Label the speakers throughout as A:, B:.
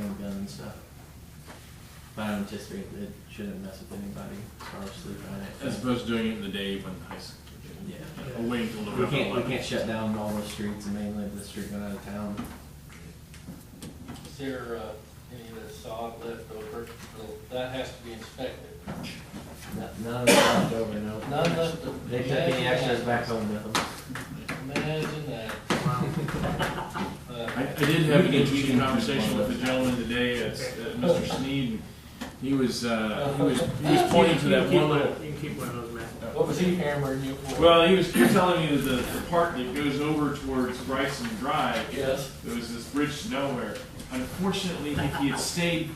A: and stuff. But I don't anticipate it shouldn't mess with anybody, so I'll just leave it on it.
B: As opposed to doing it in the day when high school,
A: Yeah.
B: or waiting till
A: We
B: November
A: can't, we
B: 11th.
A: can't shut down all the streets and mainly the street going out of town.
C: Is there, uh, any of the sod left over? Well, That has to be inspected.
A: Not- None of it's left over, no.
C: None left over.
A: They took any extras back home with them.
C: Imagine that.
B: I,
C: Uh,
B: I did have an interesting conversation with a gentleman today, uh, Mr. Sneed, and he was, uh, he was, he was pointing to that one little.
D: You can keep one of those, man.
C: What was he hammering you for?
B: Well, he was, he was telling me that the, the part that goes over towards Bryson Drive,
C: Yes.
B: there was this bridge to nowhere. Unfortunately, if he had stayed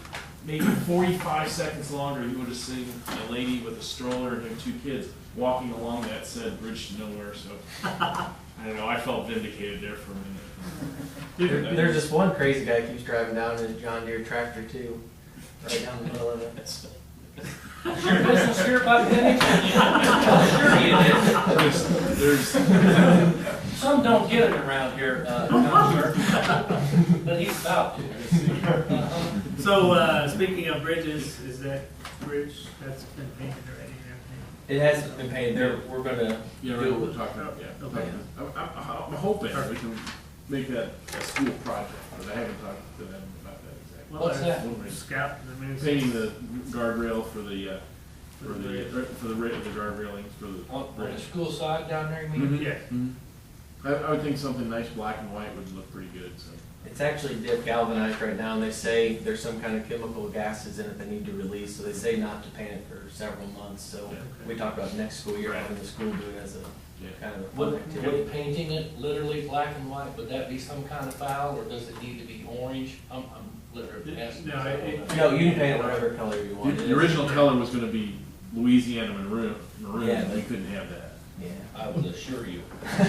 B: maybe forty-five seconds longer, he would have seen a lady with a stroller and her two kids walking along that said bridge to nowhere, so. I don't know, I felt vindicated there for a minute.
A: There- There's this one crazy guy keeps driving down in his John Deere tractor too, right down the middle of it.
C: Is your business here by pennies? Sure it is.
B: There's, there's,
C: Some don't get it around here, uh, Counselor. But he's about to. Uh-huh.
D: So, uh, speaking of bridges, is that bridge, that's been painted already and everything?
A: It hasn't been painted, there, we're gonna,
B: yeah, right, we're talking about, yeah.
D: Okay.
B: I'm, I'm, I'm hoping we can make that a school project, but I haven't talked to them about that exactly.
D: Well,
C: What's
D: there's
C: that?
B: Wondering.
D: Scout, I mean, it's-
B: Painting the guardrail for the, uh, for the, uh, for the ra the guard railings for the
C: On, on the
B: bridge.
C: school side down there, you mean?
B: Mhm.
D: Mm-hmm. yeah,
B: I, I would think something nice black and white would look pretty good, so.
A: it's actually dip galvanized right now, and they say there's some kind of chemical gases in it they need to release, so they say not to paint it for several months, so
B: Yeah.
A: we talked about next school year,
B: Right.
A: having the school do it as a
B: Yeah.
A: kind of a fun
C: Would,
A: activity.
C: would painting it literally black and white, would that be some kind of foul, or does it need to be orange? I'm, I'm literally asking.
D: No, it-
A: No, you can paint it whatever color you
B: The,
A: want. It
B: the
A: is-
B: original color was gonna be Louisiana maroon, maroon,
A: Yeah,
B: and we
A: but-
B: couldn't have that.
A: Yeah.
C: I will assure you.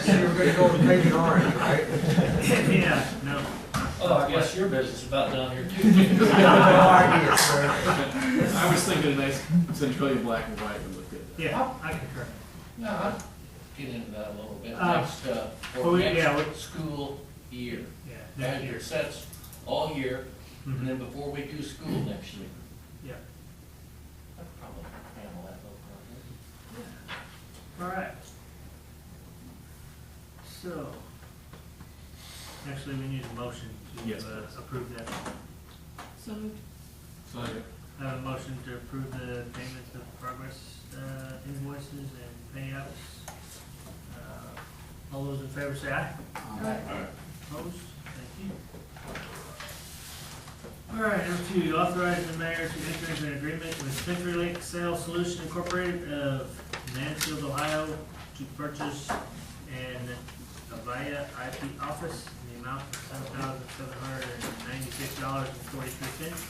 E: So we're gonna go with painted orange, right?
B: Mm-hmm.
D: yeah, no.
C: Oh, I guess your business is about down here too.
E: No idea, sir.
B: I was thinking a nice Centralia black and white would look good.
D: Yeah, I concur.
C: No, I'll get into that a little bit.
D: Uh,
C: Next, uh,
D: well,
C: for
D: we- yeah,
C: next school year.
D: Yeah,
C: That
D: that
C: year
D: year.
C: sets all year, and
D: Mhm.
C: then before we do school next year.
D: Yeah.
C: I could probably handle that little project.
D: All right. So, actually, we need a motion to
B: Yes,
D: uh, approve that.
F: So moved.
B: So, yeah.
D: I have a motion to approve the payments of progress uh, invoices and payouts. Uh, All those in favor say aye.
B: Alright.
D: Opposed? Thank you. All right, number two, authorize the mayor to enter into an agreement with Century Link Sales Solution Incorporated of Mansfield, Ohio to purchase an Avaya IP office in the amount of seven thousand seven hundred and ninety-six dollars and forty-three cents.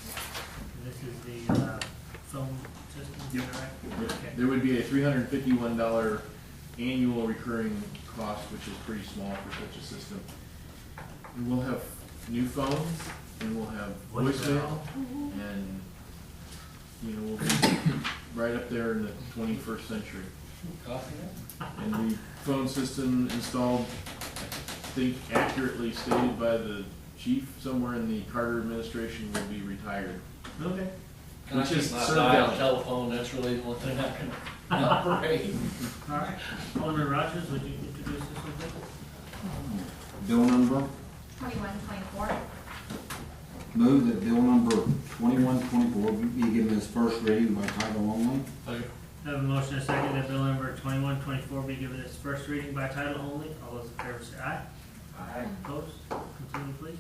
D: And this is the, uh, phone system, is that right? Okay.
B: There would be a three hundred and fifty-one dollar annual recurring cost, which is pretty small for such a system. And we'll have new phones, and we'll have voicemail,
D: Voicemail.
B: and, you know, we'll be right up there in the twenty-first century.
C: Copy that?
B: And the phone system installed, I think accurately stated by the chief somewhere in the Carter administration, will be retired.
D: Okay.
C: Can I
B: Which is
C: keep my
B: served
C: dial
B: out.
C: telephone, that's really the one thing I can operate.
D: All right. Alderman Rogers, would you introduce this one, please?
G: Bill number,
F: Twenty-one, twenty-four.
G: move that bill number twenty-one twenty-four be given its first reading by title only.
D: I Have a motion and a second that bill number twenty-one twenty-four be given its first reading by title only. All those in favor say aye. Aye. Opposed? Continue, please.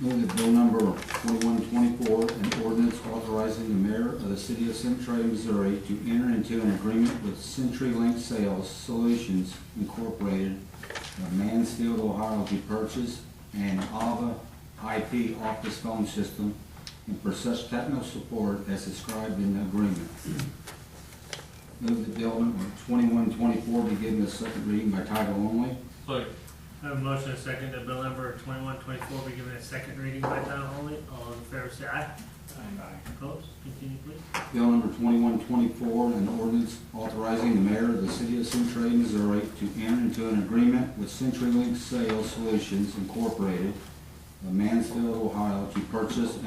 G: Move that bill number twenty-one twenty-four, an ordinance authorizing the mayor of the city of Centralia, Missouri to enter into an agreement with CenturyLink Sales Solutions Incorporated of Mansfield, Ohio to purchase an AVA IP office phone system and for such technical support as described in the agreement. Move that bill number twenty-one twenty-four be given its second reading by title only.
D: I Have a motion and a second that bill number twenty-one twenty-four be given its second reading by title only. All those in favor say aye. Aye. Opposed? Continue, please.
G: Bill number twenty-one twenty-four, an ordinance authorizing the mayor of the city of Centralia, Missouri to enter into an agreement with CenturyLink Sales Solutions Incorporated of Mansfield, Ohio to purchase